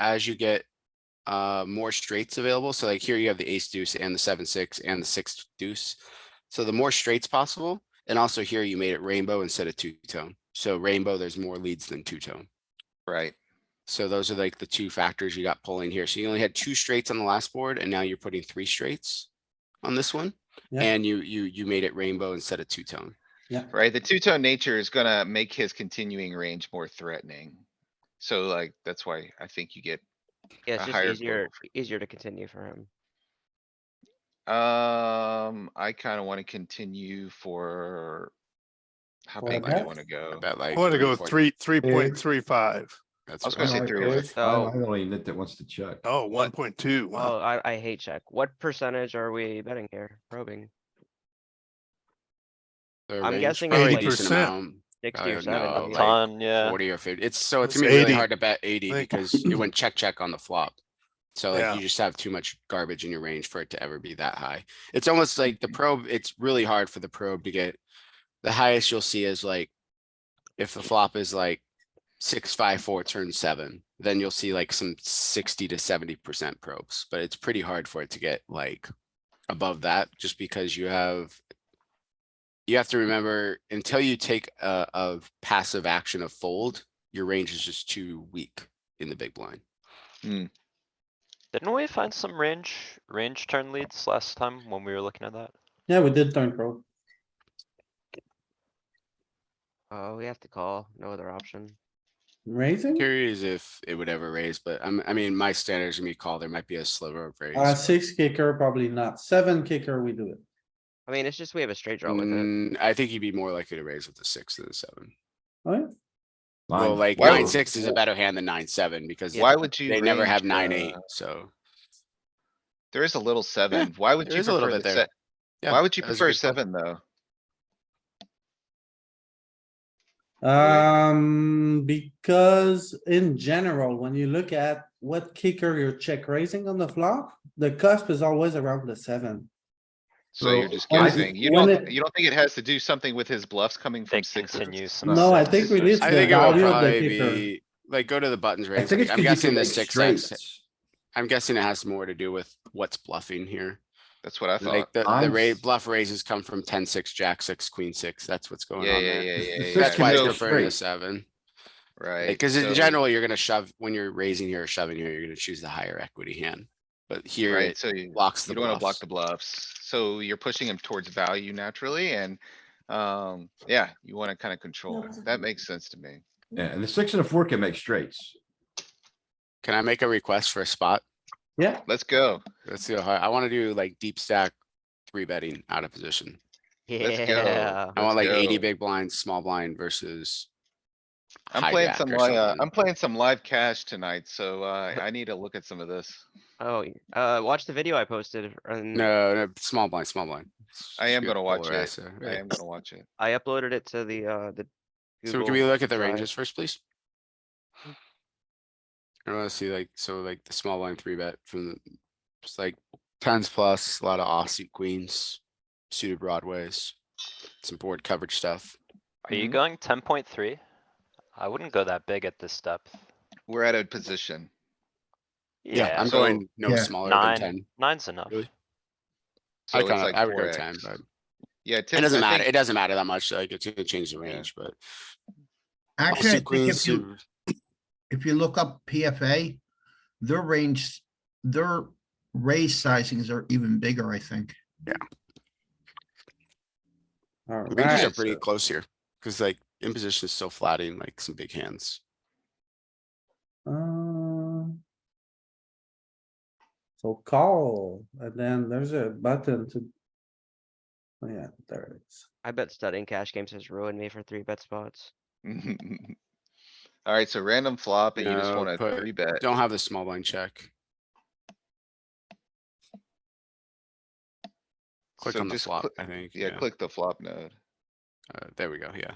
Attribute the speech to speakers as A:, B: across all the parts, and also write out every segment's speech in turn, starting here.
A: as you get uh, more straights available. So like here you have the ace deuce and the seven, six and the six deuce. So the more straights possible. And also here you made it rainbow instead of two tone. So rainbow, there's more leads than two tone.
B: right?
A: So those are like the two factors you got pulling here. So you only had two straights on the last board and now you're putting three straights on this one.
C: Yeah.
A: And you, you, you made it rainbow instead of two tone.
B: Right? The two-tone nature is gonna make his continuing range more threatening. So like, that's why I think you get,
D: Yeah,
B: a
D: it's just
B: higher
D: easier,
B: goal
D: easier to continue for him.
B: um, I kinda wanna continue for. How
C: For a
B: big do you
C: bet?
B: wanna
A: I
B: go?
A: bet like.
E: I wanna go
A: 3.4.
E: three, three point three five.
A: That's
B: I was
A: what
B: gonna
A: I
B: say
A: like.
B: three or
D: So-
E: Oh,
F: I'm only that that wants to check.
E: Oh, one point two,
D: Oh,
E: wow.
D: I, I hate check. What percentage are we betting here? Probing
A: The
D: I'm
A: range
D: guessing
A: probably
E: it's
A: a
E: like-
A: decent
E: 80%.
A: amount.
D: sixty or
A: don't know,
D: seventy.
A: Oh, like-
G: Ton, yeah.
A: Forty or fifty, it's so it's
E: It's
A: gonna be really
E: 80.
A: hard to bet eighty
E: Like-
A: because it went check, check on the flop. So
E: Yeah.
A: like you just have too much garbage in your range for it to ever be that high. It's almost like the probe, it's really hard for the probe to get. The highest you'll see is like. If the flop is like six, five, four, turn seven, then you'll see like some sixty to seventy percent probes, but it's pretty hard for it to get like. Above that, just because you have you have to remember until you take a, a passive action of fold, your range is just too weak in the big blind.
G: Didn't we find some range, range turn leads last time when we were looking at that?
C: Yeah, we did turn pro.
D: Oh, we have to call. No other option.
C: Raising?
A: Curious if it would ever raise, but I'm, I mean, my standards gonna be call, there might be a sliver of
C: Uh,
A: raise.
C: six kicker, probably not. Seven kicker, we do it.
D: I mean, it's just we have a straight draw with it.
A: Mm, I think you'd be more likely to raise with the six than the seven.
C: Alright,
A: Well,
F: Line.
A: like
B: Why
A: nine,
B: would-
A: six is a better hand than nine, seven because
B: Why would you?
A: they never
B: range
A: have nine,
B: the-
A: eight, so.
B: There is a little seven. Why would
A: there
B: you
A: is a little
B: prefer
A: bit
B: the
A: there.
B: se-
A: yeah,
B: Why would you
A: that was a
B: prefer
A: good call.
B: seven, though?
C: um, because in general, when you look at what kicker you're check raising on the flop, the cusp is always around the seven.
B: So you're
F: So,
B: just
C: I-
B: guessing. You
C: when
B: don't,
C: it-
B: you don't think it has to do something with his bluffs coming from
G: Think
B: sixes?
G: continues some
C: No, I think
G: sixes
C: we
G: or
C: need
A: I
C: the
A: think it
C: value
A: would
C: of the
A: probably
C: kicker.
A: be, like, go to the buttons
F: I
A: raise.
F: think it's
A: I'm
F: 'cause you
A: guessing
F: can
A: the
F: make
A: six, X-
F: straights.
A: I'm guessing it has more to do with what's bluffing here.
B: That's what I thought.
A: Like the, the
F: I'm
A: raise,
F: s-
A: bluff raises come from ten, six, jack, six, queen, six. That's what's going
B: Yeah,
A: on
B: yeah,
A: there.
B: yeah, yeah,
F: The
B: yeah.
F: six
A: That's why it's
F: can go
B: yeah. So-
A: preferred to
F: straight.
A: seven.
B: Right.
A: Because in
B: so-
A: general, you're gonna shove, when you're raising here or shoving here, you're gonna choose the higher equity hand. But here
B: Right,
A: it
B: so you,
A: blocks
B: you
A: the
B: don't wanna
A: bluffs.
B: block the bluffs. So you're pushing him towards value naturally and, um, yeah, you wanna kinda control. it. That makes sense to me.
F: Yeah, and the six and a four can make straights.
A: Can I make a request for a spot?
C: Yeah,
B: Let's go.
A: Let's see, how high- I wanna do like deep stack, three betting out of position.
B: let's go.
D: Yeah.
A: I want like
B: Let's
A: eighty
B: go.
A: big blinds, small blind versus.
B: I'm
A: high
B: playing
A: jack
B: some,
A: or
B: li- uh,
A: something.
B: I'm playing some live cash tonight, so, uh, I need to look at some of this.
D: Oh, y- uh, watch the video I posted and
A: No, no, small blind, small blind.
B: I am
A: Screw
B: gonna watch it.
A: polarizer,
B: I
A: right.
B: am gonna watch it.
D: I uploaded it to the, uh, the.
A: So can
D: Google
A: we look at the
D: Drive.
A: ranges first, please?
B: Hmm.
A: I wanna see like, so like the small line three bet from the, it's like tens plus, a lot of offsuit queens, suited broadways, some board coverage stuff.
G: Are
A: Mm-hmm.
G: you going ten point three? I wouldn't go that big at this depth.
B: We're at a position.
A: Yeah, I'm
B: so-
A: going no
F: yeah,
A: smaller than
G: Nine,
A: ten.
G: nine's enough.
A: Really?
B: So
A: I
B: it's
A: kinda,
B: like
A: I would go ten,
B: 4x.
A: but
B: Yeah.
A: it
B: Tim's-
A: doesn't
B: I
A: matter.
B: think-
A: It doesn't matter that much. Like it's gonna change the
B: Yeah.
A: range, but.
H: Actually,
A: offsuit
H: I think
A: queens,
H: if you,
A: suited-
H: if you look up PFA, their range, their raise sizings are even bigger, I think.
A: Ranges are
C: alright,
A: pretty close here, cuz like imposition is so flattening, like some big hands.
C: um. So call, and then there's a button to. Oh, Yeah, there it is.
D: I bet studying cash games has ruined me for three bet spots.
B: Alright, so random flop and you just
A: No,
B: wanna
A: put-
B: three bet.
A: Don't have the small line check. Click
B: So
A: on the
B: just
A: flop,
B: click-
A: I think.
B: Yeah, click the flop node.
A: Uh, there we go, yeah.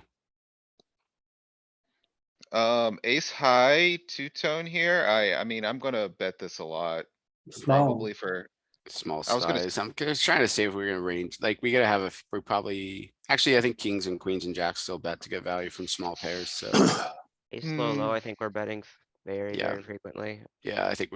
B: Um, ace high, two tone here. I, I mean, I'm gonna bet this a lot,
C: Small,
B: probably for,
A: Small
B: I was gonna
A: size. I'm just trying to see if we're gonna range, like, we gotta have a, f- we're probably, actually, I think kings
E: Uh,
A: and queens and jacks still bet to get value from small pairs, so.
D: Ace low,
B: Hmm.
D: low, I think we're betting f-
I: very,
D: Yeah.
I: very frequently.
D: Yeah, I think